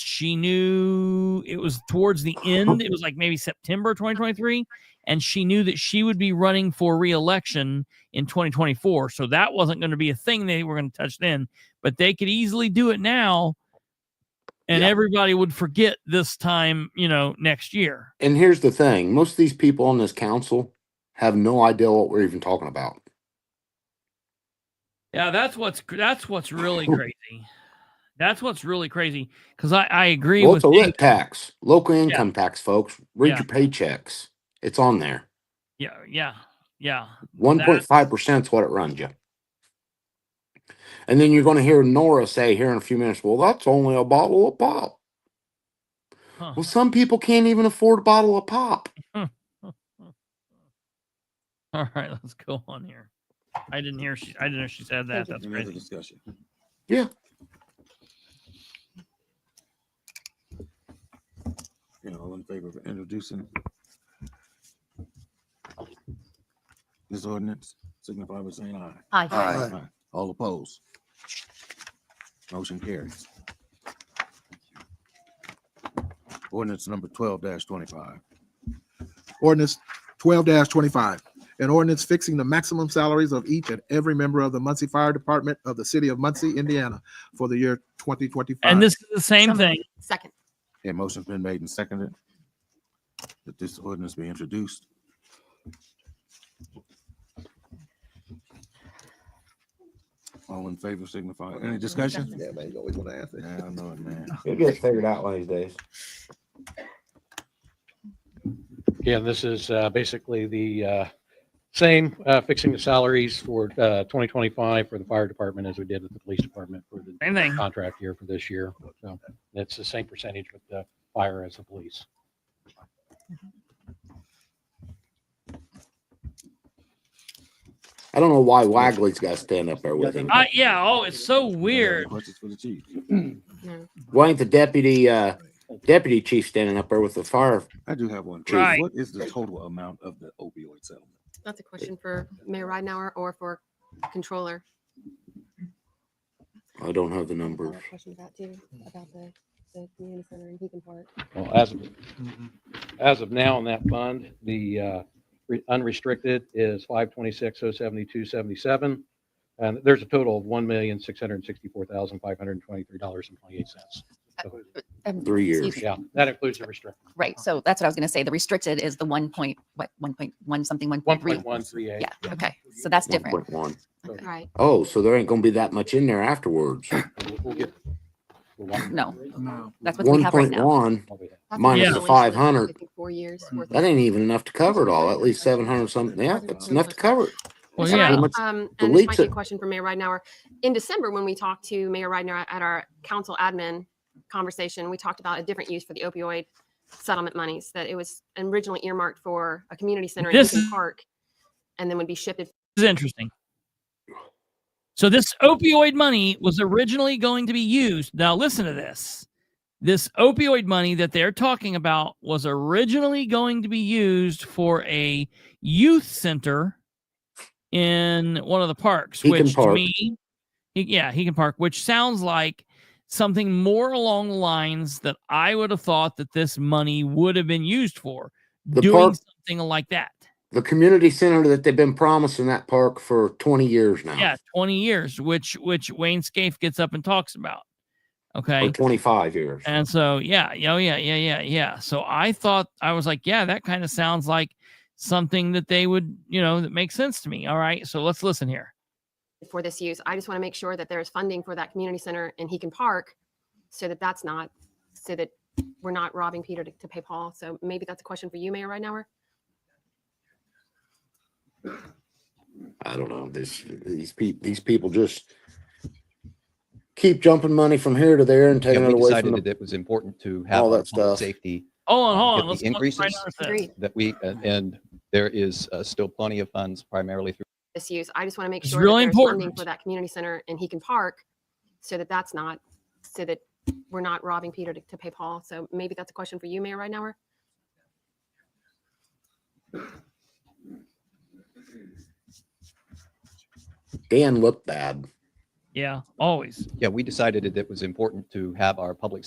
she knew it was towards the end. It was like maybe September 2023, and she knew that she would be running for reelection in 2024. So that wasn't going to be a thing they were going to touch then, but they could easily do it now, and Yeah. everybody would forget this time, you know, next year. And here's the thing most of these people on this council have no idea what we're even talking about. Yeah, that's what's that's what's really crazy. That's what's really crazy because I, I agree Well, with it's a Dave. lit tax, local income tax, folks. Read Yeah. your paychecks. It's on there. yeah yeah yeah 1.5% is what it runs you. And then you're going to hear Nora say here in a few minutes, well, that's only a bottle of pop. huh. Well, some people can't even afford a bottle of pop. All right, let's go on here. I didn't hear she. I didn't know she said that. That's Another crazy. discussion. Yeah. You know, all in favor of introducing this ordinance, signify by saying aye. Aye. Aye. All opposed? Motion carries. Ordinance number twelve twenty-five. Ordinance twelve twenty-five. An ordinance fixing the maximum salaries of each and every member of the Muncie Fire Department of the City of Muncie, Indiana for the year twenty twenty-five. And this is the same Some- thing. Second. A motion's been made and seconded that this ordinance be introduced. All in favor signify, any discussion? Yeah, man, you always want to ask Yeah, I know it, man. It gets figured out one of these days. Yeah, this is uh, basically the uh, same, uh, fixing the salaries for uh, 2025 for the fire department as we did with the police department for the Same thing. contract year for this year. So it's the same percentage with the fire as the police. I don't know why Wagley's got to stand up there with him. I, yeah. Oh, it's so weird. Questions for the chief? No. Why ain't the deputy, uh, deputy chief standing up there with the fire? I do have one. Right. What is the total amount of the opioid settlement? That's a question for Mayor Ridenhour or for controller. I don't have the I have numbers. a Question about too, about the, the community center in Beacon Park. Well, as of, Mm-hmm. as of now in that fund, the uh, re- unrestricted is five twenty-six oh seventy-two seventy-seven. And there's a total of one million, six hundred and sixty-four thousand, five hundred and twenty-three dollars and twenty-eight cents. Um, Three years. excuse me. Yeah, that includes the restricted, Right, so that's what I was gonna say. The restricted is the one point, what, one point, one something, one one point three? point one three eight. Yeah, okay, so that's different. 1.1. Right. Oh, so there ain't going to be that much in there afterwards. We'll get. we'll walk- No, No. that's what we have right now. 1.1. what we have. That's Minus what the it's only for, 500. I think, Four years. worth That of- ain't even enough to cover it all. At least seven hundred something. Yeah, that's enough to cover it. Well, Can I, yeah. much Um, the and this leaks might be a that- question for Mayor Ridenhour. In December, when we talked to Mayor Ridenhour at our council admin conversation, we talked about a different use for the opioid settlement monies, that it was originally earmarked for a community center in This Beacon is- Park and then would be shifted. This is interesting. So this opioid money was originally going to be used. Now listen to this. This opioid money that they're talking about was originally going to be used for a youth center in one of the parks, He can which to park. me, he- yeah, he can park, which sounds like something more along the lines that I would have thought that this money would have been used for, The doing park- something like that. The community center that they've been promising that park for twenty years Uh-huh. now. yeah 20 years which which wayne scaife gets up and talks about okay Or twenty-five years. and so yeah yeah, oh yeah yeah yeah yeah so i thought i was like yeah that kind of sounds like something that they would you know that makes sense to me all right so let's listen here for this use. I just want to make sure that there's funding for that community center in Heacon Park so that that's not, so that we're not robbing Peter to, to pay Paul. So maybe that's a question for you, Mayor Ridenhour. I don't know. This, these people, these people just keep jumping money from here to there and taking Yeah, it we away from decided that the. it was important to have all that our stuff. public safety hold on Oh, hold Get on the let's look right increases? now at this. Agreed. that we, and- and there is uh, still plenty of funds primarily through this use. I just want to make It's sure really that there's funding important. for that community center in Heacon Park so that that's not, so that we're not robbing Peter to, to pay Paul. So maybe that's a question for you, Mayor Ridenhour. Dan looked bad. yeah always yeah, we decided that it was important to have our public